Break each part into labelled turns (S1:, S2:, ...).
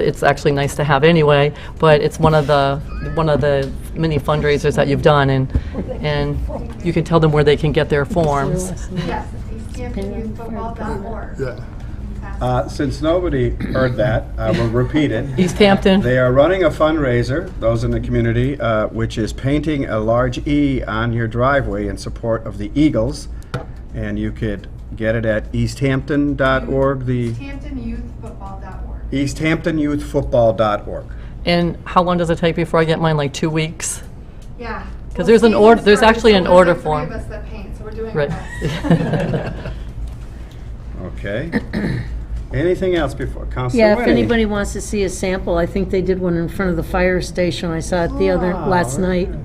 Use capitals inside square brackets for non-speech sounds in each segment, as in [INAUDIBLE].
S1: It's actually nice to have anyway, but it's one of the, one of the many fundraisers that you've done, and, and you can tell them where they can get their forms.
S2: Yes, it's easthamptonyouthfootball.org.
S3: Yeah.
S4: Uh, Since nobody heard that, I will repeat it.
S1: East Hampton,
S4: They are running a fundraiser, those in the community, uh, which is painting a large E on your driveway in support of the Eagles. And you could get it at easthampton.org, the
S2: easthamptonyouthfootball.org.
S4: easthamptonyouthfootball.org.
S1: and how long does it take before I get mine, like two weeks?
S2: Yeah.
S1: 'Cause there's an order- there's actually an order
S2: So
S1: form.
S2: there's three of us that paint, so we're doing our
S1: Right. [LAUGHS]
S2: best.
S5: [COUGHS]
S4: Okay. Anything else before, Counselor
S5: Yeah, if
S4: Whitty?
S5: anybody wants to see a sample, I think they did one in front of the fire station. I saw it the other,
S4: Ah,
S5: last
S4: okay.
S5: night. I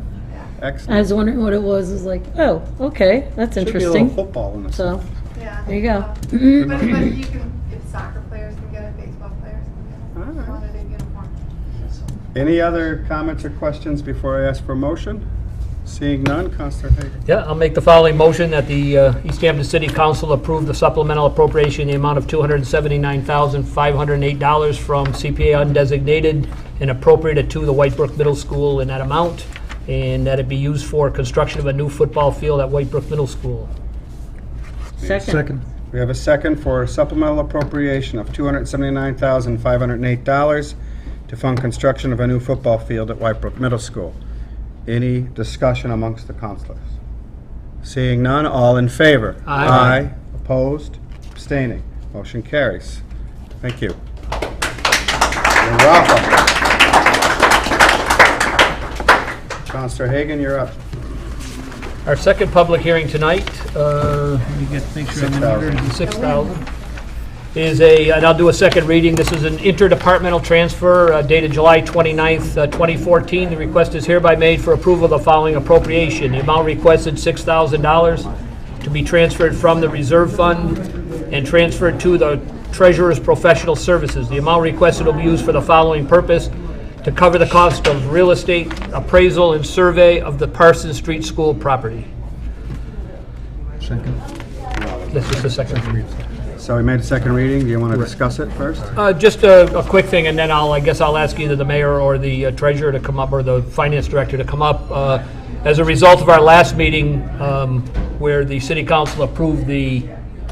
S4: Excellent.
S5: was wondering what it was. It was like, oh, okay, that's
S4: Should be a little
S5: interesting.
S4: football in this.
S5: So,
S2: Yeah.
S5: There you go.
S2: Uh, [LAUGHS] But, but you can, if soccer players can get it, baseball players can get it,
S4: Alright.
S2: if you wanted a uniform.
S4: Any other comments or questions before I ask for a motion? Seeing none, Counselor Hagan.
S6: Yeah, I'll make the following motion that the uh, East Hampton City Council approve the supplemental appropriation in the amount of $279,508 from CPA undesignated and appropriate it to the Whitebrook Middle School in that amount, and that it be used for construction of a new football field at Whitebrook Middle School.
S5: second.
S4: We have a second for supplemental appropriation of $279,508 to fund construction of a new football field at Whitebrook Middle School. Any discussion amongst the counselors? Seeing none, all in favor?
S6: Aye.
S4: Opposed? Abstaining? Motion carries. Thank you. You're welcome. Counselor Hagan, you're up.
S6: Our second public hearing tonight, uh, let me get, make sure I'm in order,
S4: 6,000.
S6: 6,000, is a, and I'll do a second reading, this is an interdepartmental transfer uh, dated July 29th, uh, 2014. The request is hereby made for approval of the following appropriation. The amount requested, $6,000, to be transferred from the reserve fund and transferred to the treasurer's professional services. The amount requested will be used for the following purpose: to cover the cost of real estate appraisal and survey of the Parsons Street School property. Second. This is the second.
S4: So we made a second reading. Do you want to discuss it first?
S6: Uh, Just a a quick thing, and then I'll, I guess I'll ask either the mayor or the uh, treasurer to come up, or the finance director to come up. Uh, As a result of our last meeting, um, where the city council approved the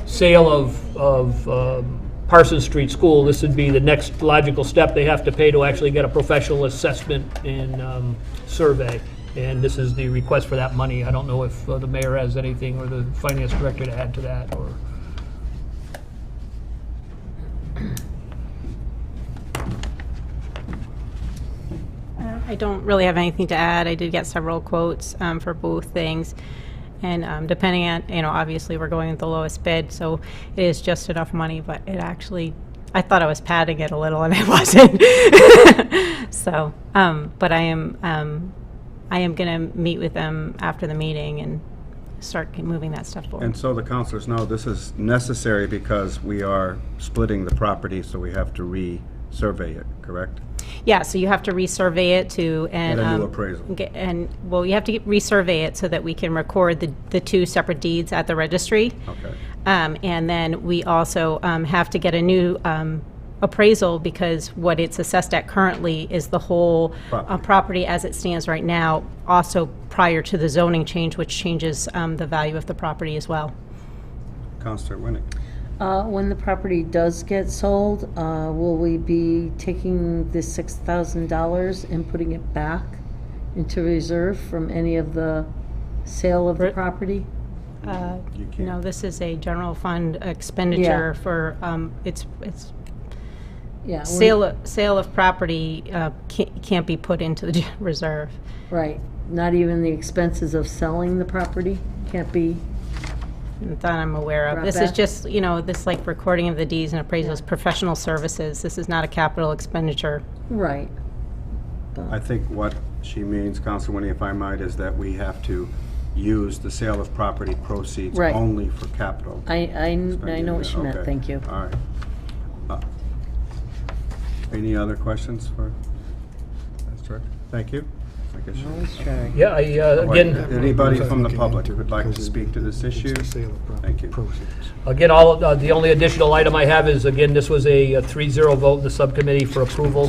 S6: sale of of um, Parsons Street School, this would be the next logical step they have to pay to actually get a professional assessment and um, survey. And this is the request for that money. I don't know if uh, the mayor has anything, or the finance director to add to that, or...
S7: Uh, I don't really have anything to add. I did get several quotes um, for both things. And um, depending on, you know, obviously, we're going with the lowest bid, so it is just enough money, but it actually, I thought I was padding it a little, and [LAUGHS] I wasn't. [LAUGHS] So, um, but I am, um, I am going to meet with them after the meeting and start moving that stuff forward.
S4: And so the counselors know this is necessary because we are splitting the property, so we have to re-survey it, correct?
S7: Yeah, so you have to resurvey it to, and.
S4: Get a new
S7: um,
S4: appraisal.
S7: get- And, well, you have to get- resurvey it so that we can record the, the two separate deeds at the registry.
S4: Okay.
S7: Um, and then we also, um, have to get a new, um, appraisal because what it's assessed at currently is the whole uh,
S4: Property.
S7: property as it stands right now, also prior to the zoning change, which changes, um, the value of the property as well.
S4: Counselor Winnick?
S5: Uh, when the property does get sold, uh, will we be taking the six thousand dollars and putting it back into reserve from any of the sale of the
S6: Right.
S5: property?
S7: Uh,
S4: You can't.
S7: No, this is a general fund expenditure for, um, it's, it's
S5: Yeah. we-
S7: Sale, of- sale of property uh, ca- can't be put into the [LAUGHS] reserve.
S5: Right, not even the expenses of selling the property can't be,
S7: That I'm aware of.
S5: Brought
S7: This is
S5: back.
S7: just, you know, this like recording of the deeds and appraisals, professional services. This is not a capital expenditure.
S5: right.
S4: I think what she means, Counselor Winnie, if I might, is that we have to use the sale of property proceeds
S5: Right.
S4: only for capital.
S5: I, I, I know what you meant,
S4: Okay.
S5: thank you.
S4: All right. Uh, Any other questions for, that's correct? Thank you. I guess.
S5: Always try.
S6: Yeah, I, uh,
S4: Wait,
S6: again,
S4: Anybody from the public who would like to speak to this issue? Thank you.
S6: again, all, uh, the only additional item I have is, again, this was a uh, 3-0 vote in the subcommittee for approval